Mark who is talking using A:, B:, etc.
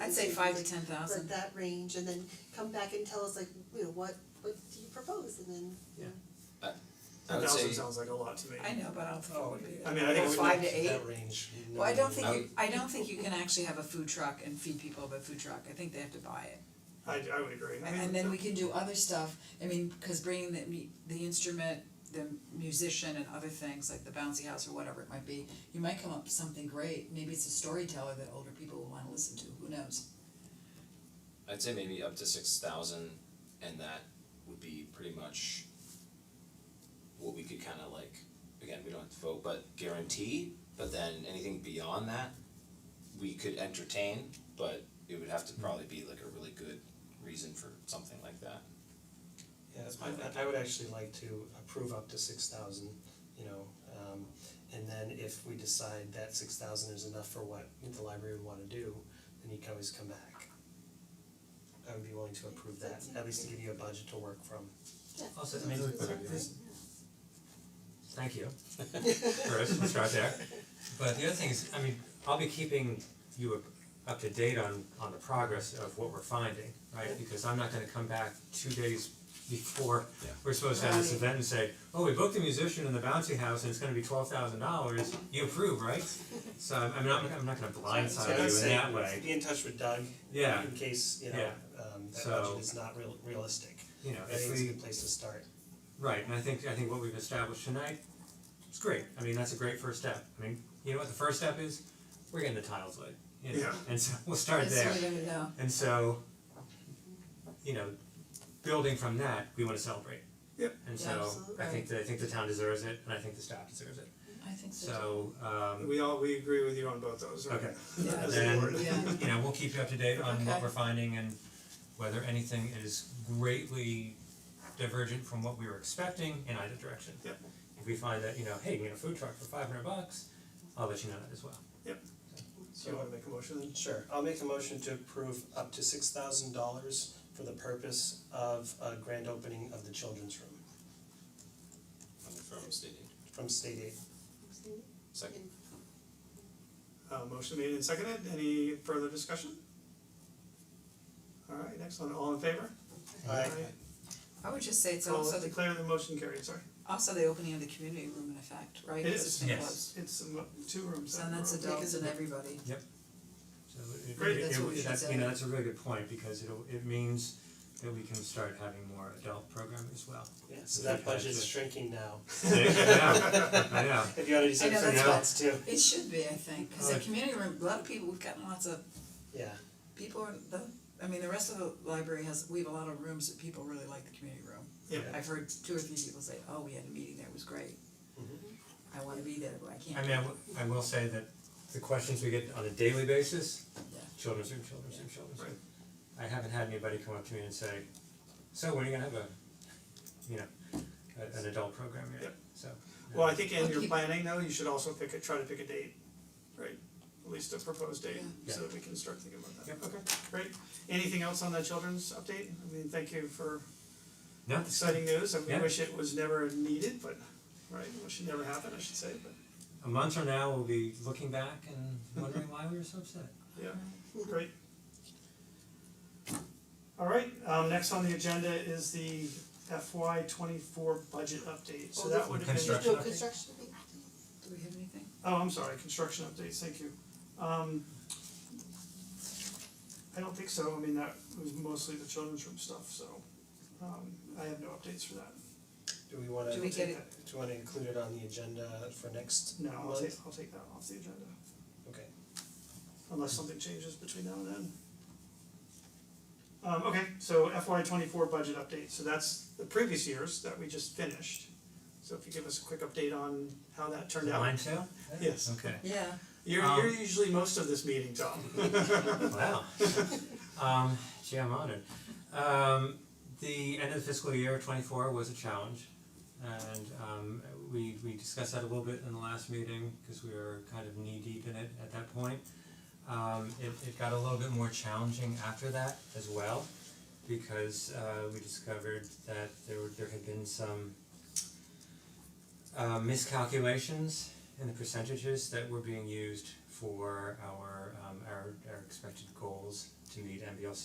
A: I'd say five to ten thousand.
B: But that range and then come back and tell us like, you know, what what do you propose and then
C: I would
D: Thousand
C: say,
D: sounds like a lot to me.
A: I know, but I don't think it would be.
D: I mean, I think it would
A: Five
D: be
A: to eight.
D: that range.
A: Well, I don't
C: I
A: think you, I don't think you can actually have a food truck and feed people with a food truck, I think they have to buy it.
D: I I would agree. I
A: And
D: mean, uh,
A: and then we can do other stuff, I mean, cause bringing the mu- the instrument, the musician and other things, like the bouncy house or whatever it might be, you might come up with something great, maybe it's a storyteller that older people will wanna listen to, who knows?
C: I'd say maybe up to six thousand and that would be pretty much what we could kinda like, again, we don't have to vote, but guarantee, but then anything beyond that, we could entertain, but it would have to probably be like a really good reason for something like that.
E: Yeah, that's my, I I would actually like to approve up to six thousand, you know, um and then if we decide that six thousand is enough for what the library would wanna do, then you can always come back. I would be willing to approve that, at least to give you a budget to work from.
B: yeah.
F: Also, I mean,
B: Sounds good.
F: this- Thank you. First, let's start there. But the other thing is, I mean, I'll be keeping you up- up to date on on the progress of what we're finding, right? Because I'm not gonna come back two days before
C: Yeah.
F: we're supposed to have this
A: Right.
F: event and say, oh, we booked a musician in the bouncy house and it's gonna be twelve thousand dollars, you approve, right? So I'm I'm not I'm not gonna
E: So I
F: blindside
E: would
F: you in
E: say
F: that way,
E: Be in touch with Doug.
F: Yeah.
E: In case, you know,
F: Yeah.
E: um that
F: So-
E: budget is not real realistic.
F: you know,
E: I
F: if
E: think it's a
F: we,
E: good place to start.
F: right, and I think I think what we've established tonight is great, I mean, that's a great first step. I mean, you know what the first step is? We're getting the tiles laid, you know,
D: Yeah.
F: and so we'll start there.
A: That's uh, the way to go.
F: And so, you know, building from that, we wanna celebrate.
D: Yep.
F: And
A: Yeah,
F: so,
A: absolutely.
F: I think the, I think the town deserves it, and I think the staff deserves it,
A: I think so.
F: so, um,
D: we all, we agree with you on both those, right?
F: Okay.
A: Yeah.
D: As a
F: Then-
D: board.
A: Yeah.
F: you know, we'll keep you up to date on
A: Okay.
F: what we're finding and whether anything is greatly divergent from what we were expecting in either direction.
D: Yep.
F: If we find that, you know, hey, we got a food truck for five hundred bucks, I'll let you know that as well.
D: So you wanna make a motion then?
E: Sure, I'll make a motion to approve up to six thousand dollars for the purpose of a grand opening of the children's room
C: I'm from stating,
E: from state aid.
C: second,
D: Uh motion made and seconded, any further discussion? Alright, excellent, all in favor?
E: Aye.
A: I would just say it's
D: So
A: also the,
D: declare the motion carried, sorry.
A: also the opening of the community room in effect, right? 'Cause
D: is.
A: it's been
F: Yes.
A: closed.
D: It's a mo- two rooms.
A: So that's
D: that
A: adults and everybody.
F: So it- it
D: Great.
F: it-
A: That's what we
F: it-
A: should
F: that's,
A: say.
F: you know, that's a really good point, because it'll, it means that we can start having more adult programming as well.
E: Yeah, so that budget's shrinking now.
F: Yeah, I know.
E: If you already
A: I
E: said
A: know,
E: something
A: that's what-
E: else too,
A: It should be, I think, because the
F: Alright.
A: community room, a lot of people, we've gotten lots of
E: yeah,
A: people, are the, I mean, the rest of the library has, we have a lot of rooms that people really like the community room.
D: Yeah.
A: I've heard two or three people say, oh, we had a meeting there, it was great. I wanna be there, but I
F: I
A: can't.
F: mean, I wi- I will say that the questions we get on a daily basis,
A: Yeah.
F: children's room, children's room, children's room. I haven't had anybody come up to me and say, so when are you gonna have a, you know, a- an adult program here,
D: Yep.
F: so. yeah.
D: Well, I think in
A: I'll
D: your
A: keep-
D: planning though, you should also pick a, try to pick a date, right? At least a proposed date,
F: Yeah.
D: so that we can start thinking about that.
F: Yep.
D: Okay, great. Anything else on the children's update? I mean, thank you for
F: No, this-
D: exciting news. I
F: Yeah.
D: wish it was never needed, but, right, wish it never happened, I should say, but,
F: a month from now, we'll be looking back and wondering why we were so upset.
D: yeah, great. Alright, um, next on the agenda is the FY twenty-four budget update, so
A: Oh,
D: that would have been.
F: construction
B: No construction,
A: Do we have anything?
D: Oh, I'm sorry, construction updates, thank you. Um I don't think so, I mean, that was mostly the children's room stuff, so um I have no updates for that.
E: do we wanna,
A: Do
E: do
A: we
E: we
A: get
E: wanna include it on the agenda for next
D: No,
E: month?
D: I'll take I'll take that off the agenda,
E: Okay,
D: unless something changes between now and then. Um okay, so FY twenty four budget update, so that's the previous years that we just finished. So if you give us a quick update on how that turned out.
F: Mine too?
D: Yes.
F: Okay.
A: Yeah.
D: You're
F: Um,
D: you're usually most of this meeting, Tom.
F: Wow. Um, gee, I'm honored. Um, the end of the fiscal year twenty four was a challenge. And um, we we discussed that a little bit in the last meeting because we were kind of knee deep in it at that point. Um, it it got a little bit more challenging after that as well because uh, we discovered that there were there had been some uh, miscalculations in the percentages that were being used for our um, our our our expected goals to meet MBLC